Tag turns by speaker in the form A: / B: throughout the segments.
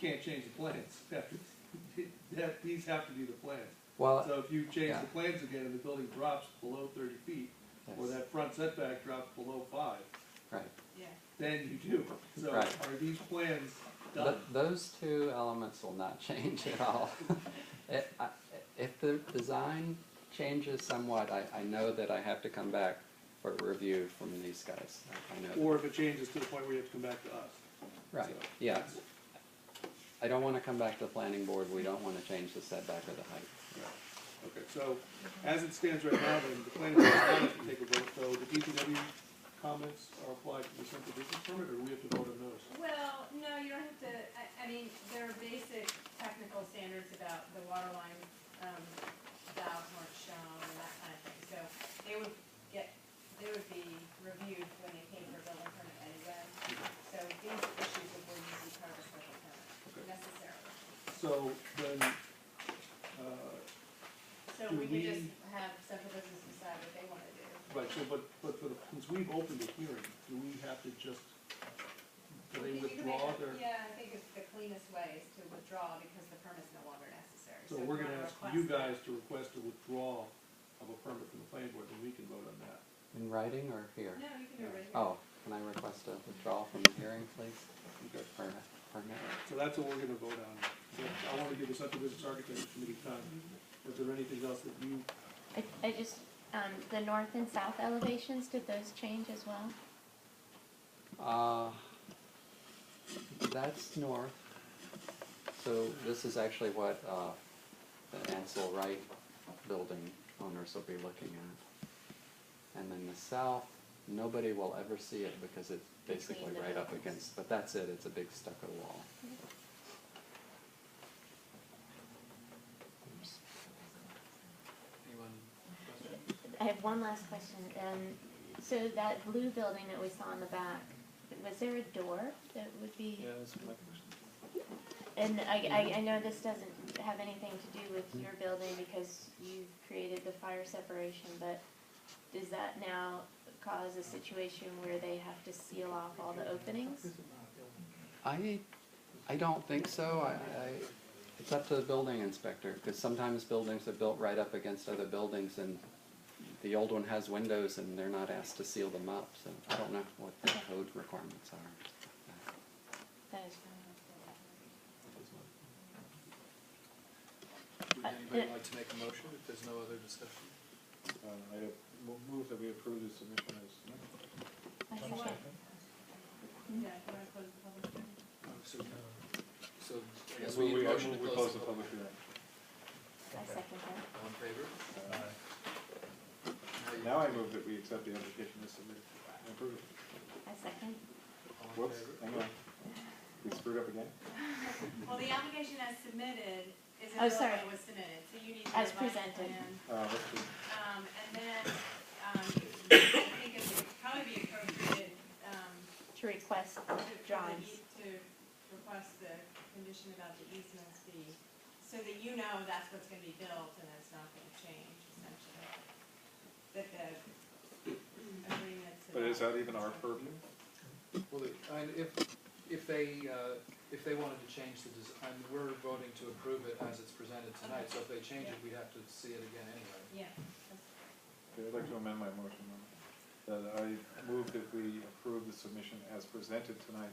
A: can't change the plans. That, these have to be the plans.
B: Well,
A: So if you change
B: Uh, yeah.
A: the plans again and the building drops below thirty feet, or
B: yes,
A: that front setback drops below five,
B: right.
C: Yeah,
A: then you do. So
B: Right.
A: are these plans done?
B: Th- those two elements will not change at all. It- I- If the design changes somewhat, I, I know that I have to come back for review from these guys. I- I know that.
A: Or if it changes to the point where you have to come back to us?
B: Right,
A: So-
B: yeah. I don't wanna come back to the planning board, we don't wanna change the setback or the height.
A: Okay, so as it stands right now, then the planning board has to take a vote, so the DPW comments are applied to the simple business permit, or we have to vote on those?
C: well, no, you don't have to, I, I mean, there are basic technical standards about the water line, um, valves weren't shown and that kind of thing, so they would get, they would be reviewed when they came for building permit anyway. So these issues would be easy part of a special permit necessarily.
A: So then, uh,
C: So
A: Do
C: we could
A: we-
C: just have central business decide what they wanna do.
A: right, so but, but for the, since we've opened the hearing, do we have to just, do
C: You
A: they
C: can make
A: withdraw
C: a-
A: their?
C: Yeah, I think it's the cleanest way is to withdraw because the permit's no longer necessary.
A: So
C: if
A: we're
C: you
A: gonna
C: wanna
A: ask you
C: request
A: guys to request a withdrawal of a permit from the planning board, then we can vote on that.
B: In writing or here?
C: it- No, you can do it right here.
B: Oh, can I request a withdrawal from the hearing, please?
A: Okay.
B: Permit, permit?
A: So that's what we're gonna vote on. So I wanna give the Central Business Architecture Committee time. Is there anything else that you,
D: I, I just, um, the north and south elevations, did those change as well?
B: Uh, that's north. So this is actually what, uh, the Ansel Wright building owners will be looking at. And then the south, nobody will ever see it because it's basically
D: Between the
B: right up
D: buildings.
B: against, but that's it, it's a big stucco wall.
D: I have one last question, um, so that blue building that we saw in the back, was there a door that would be? Yeah, that's my question. And I, I, I know this doesn't have anything to do with your building because you created the fire separation, but does that now cause a situation where they have to seal off all the openings?
B: I, I don't think so, I, I, it's up to the building inspector, cause sometimes buildings are built right up against other buildings and the old one has windows and they're not asked to seal them up, so I don't know what the code requirements are.
D: That is,
E: Would anybody like to make a motion if there's no other discussion?
F: Uh, I have mo- move that we approve the submission as submitted.
D: I
C: Do you want- Yeah, if you wanna close the public hearing.
E: So, so I guess
F: We-
E: we need a
F: we- I
E: motion to
F: move we
E: close the
F: the
E: public.
F: public hearing.
D: I second that.
E: All in favor? Now you-
F: Now I move that we accept the application as submitted and approve it.
D: I second.
E: All in
F: Whoops,
E: favor?
F: hang on. We screwed up again?
C: Well, the application as submitted is
D: Oh,
C: until
D: sorry.
C: it was submitted, so you need to.
D: As
C: revise the
D: presented.
C: plan.
F: Uh, let's see.
C: Um, and then, um, I think it would probably be appropriate, um,
D: To
C: to-
D: request
C: for the
D: drawings.
C: ea- To request the condition about the easements be, so that you know that's what's gonna be built and it's not gonna change essentially. That the agreements.
F: But is
C: about-
F: that even our purview?
E: Well, the- I- if, if they, uh, if they wanted to change the, des- I mean, we're voting to approve it as it's presented tonight, so if they change it, we'd have to see it again anyway.
C: Yeah.
F: Okay, I'd like to amend my motion. on That That I move that we approve the submission as presented tonight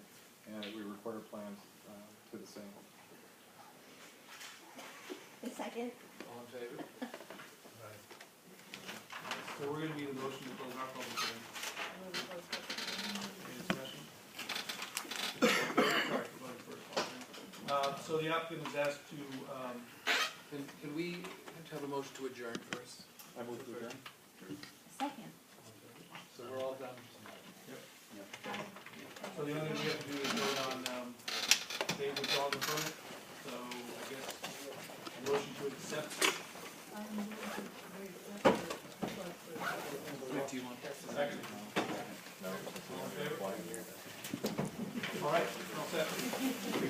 F: and that we require plans uh, to the same.
D: A second?
E: All in favor?
A: so we're gonna need a motion to close our public hearing. Any discussion? Sorry, go ahead first. Uh, so the applicant was asked to, um,
E: Can, can we have to have a motion to adjourn first?
F: I move to adjourn.
D: Second.
E: So we're all done tonight.
A: so the only thing we have to do is vote on, um, they withdraw the permit, so I guess a motion to accept.
E: Do you want?
A: Second. All in favor? All right, all set.